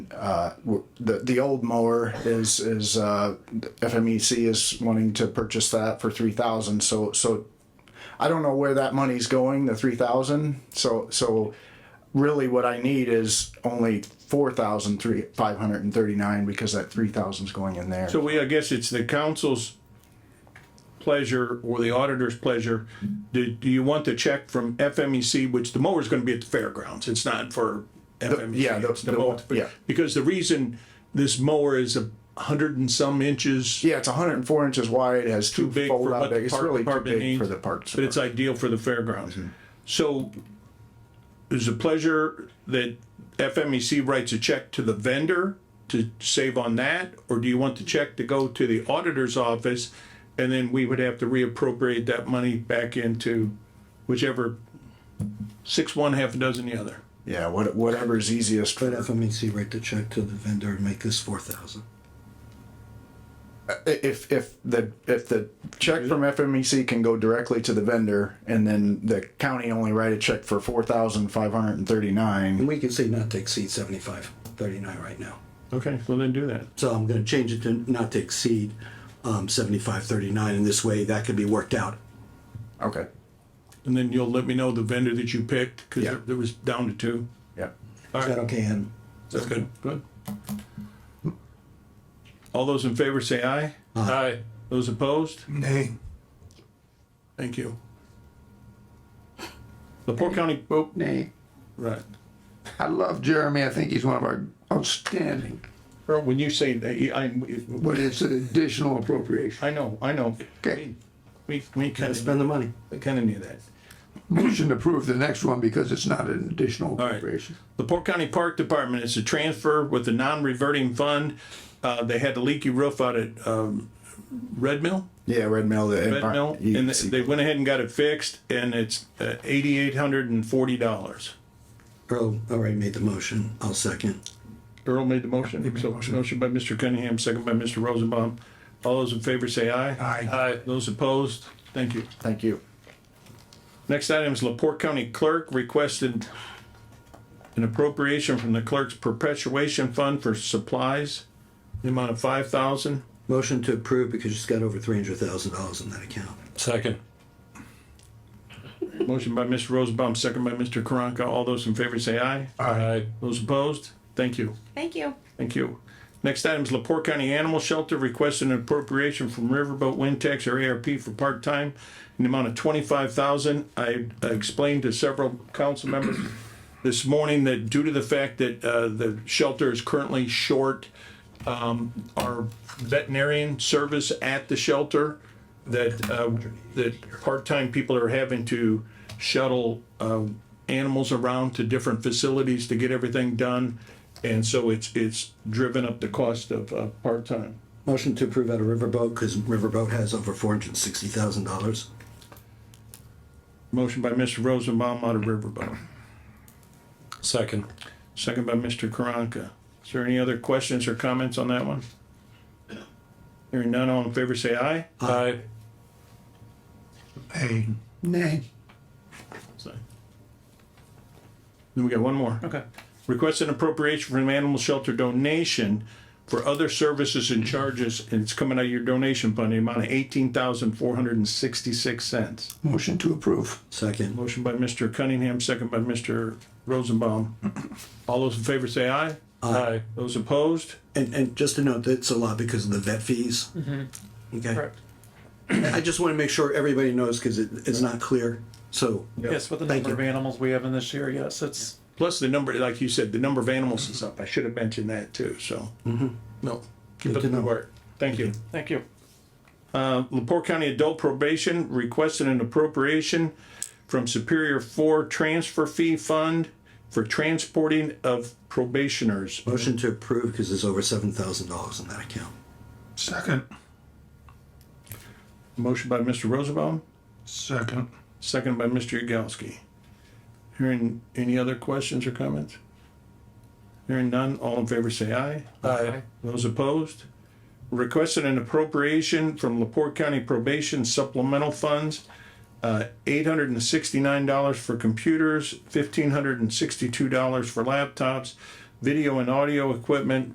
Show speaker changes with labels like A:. A: uh, w- the the old mower is is uh, FMEC is wanting to purchase that for three thousand. So so I don't know where that money's going. The three thousand. So so really, what I need is only four thousand three five hundred and thirty nine because that three thousand is going in there.
B: So we, I guess it's the council's pleasure or the auditor's pleasure. Do, do you want the check from FMEC, which the mower's gonna be at the fairgrounds? It's not for FMEC.
A: yeah, the-
B: it's
A: the-
B: mower.
A: yeah.
B: Because the reason this mower is a hundred and some inches,
A: yeah, it's 104 inches wide. It has two
B: big for
A: fold
B: what
A: out
B: the
A: big. It's
B: park
A: really too
B: department
A: big for
B: needs,
A: the parks.
B: but it's ideal for the fairgrounds. So is a pleasure that FMEC writes a check to the vendor to save on that? Or do you want the check to go to the auditor's office and then we would have to reappropriate that money back into whichever, six one, half a dozen the other?
A: yeah, what, whatever's easiest. For,
C: uh, Let FMEC write the check to the vendor and make this four thousand.
A: if if the if the check from FMEC can go directly to the vendor, and then the county only write a check for four thousand five hundred and thirty nine.
C: And we can say not to exceed seventy-five thirty-nine right now.
B: Okay, well then do that.
C: So I'm gonna change it to not to exceed, um, seventy-five thirty-nine, and this way that could be worked out.
B: Mm-hmm.
A: Okay.
B: And then you'll let me know the vendor that you picked, cause there- there was down to two.
A: Yeah.
C: Is that okay, Adam?
B: That's good. Good. All those in favor say aye.
D: Aye.
B: Those opposed?
E: Nay.
B: Thank you. The Port County, oh,
D: Vote nay.
B: right.
D: I love Jeremy. I think he's one of our outstanding,
B: Earl, when you say that, I,
D: but it's an additional appropriation.
B: I know, I know.
D: Okay.
B: We, we kind
C: Gotta
B: of,
C: spend the money.
B: kind of knew that.
D: Motion to approve the next one because it's not an additional
B: right.
D: appropriation.
B: The Port County Park Department is a transfer with a non-reverting fund. Uh, they had a leaky roof out at, um, Red Mill.
A: Yeah, Red Mill. The E
B: Red Mill, and they- they went ahead and got it fixed, and it's uh, eighty-eight hundred and forty dollars.
C: Earl already made the motion. I'll second.
B: Earl made the motion, so motion by Mr. Cunningham, second by Mr. Rosenbaum. All those in favor say aye.
E: Aye.
B: Aye. Those opposed, thank you.
A: Thank you.
B: Next item is Laporte County Clerk requested an appropriation from the clerk's perpetuation fund for supplies, the amount of five thousand.
C: Motion to approve because she's got over three hundred thousand dollars in that account.
F: Second.
B: Motion by Mr. Rosenbaum, second by Mr. Karanka. All those in favor say aye.
F: Aye.
B: Those opposed, thank you.
G: Thank you.
B: Thank you. Next item is Laporte County Animal Shelter requesting an appropriation from Riverboat Wind Tax or ARP for part-time in the amount of twenty-five thousand. I I explained to several council members this morning that due to the fact that uh, the shelter is currently short, um, our veterinarian service at the shelter, that, uh, that part-time people are having to shuttle uh, animals around to different facilities to get everything done. And so it's, it's driven up the cost of uh, part-time.
C: Motion to approve out of Riverboat because Riverboat has over four hundred sixty thousand dollars.
B: Motion by Mr. Rosenbaum out of Riverboat,
F: Second.
B: second by Mr. Karanka. Is there any other questions or comments on that one? Hearing none, all in favor say aye.
F: Aye.
E: Nay.
D: Nay.
B: So. Then we got one more. Okay. Request an appropriation from animal shelter donation for other services and charges, and it's coming out of your donation fund, the amount of eighteen thousand four hundred and sixty-six cents.
D: Motion to approve.
C: Second.
B: Motion by Mr. Cunningham, second by Mr. Rosenbaum. All those in favor say aye.
F: Aye.
B: Those opposed?
C: And, and just to note, that's a lot because of the vet fees. Okay. I just want to make sure everybody knows because it, it's not clear. So
H: Yes, with the
C: Thank
H: number of
C: you.
H: animals we have in this year, yes, it's,
B: Plus the number, like you said, the number of animals is up. I should have mentioned that too, so. No. Keep
C: Mm-hmm. Good
B: up
C: to
B: the good
C: know.
B: work. Thank you.
H: thank you.
B: Lepore County Adult Probation requested an appropriation from Superior Four Transfer Fee Fund for transporting of probationers.
C: motion to approve because there's over seven thousand dollars in that account.
E: Second.
B: Motion by Mr. Rosenbaum,
E: Second.
B: second by Mr. Yagowski. Hearing any other questions or comments? Hearing none, all in favor say aye.
F: Aye.
B: Those opposed? Requested an appropriation from Laporte County Probation Supplemental Funds, uh, eight hundred and sixty-nine dollars for computers, fifteen hundred and sixty-two dollars for laptops, video and audio equipment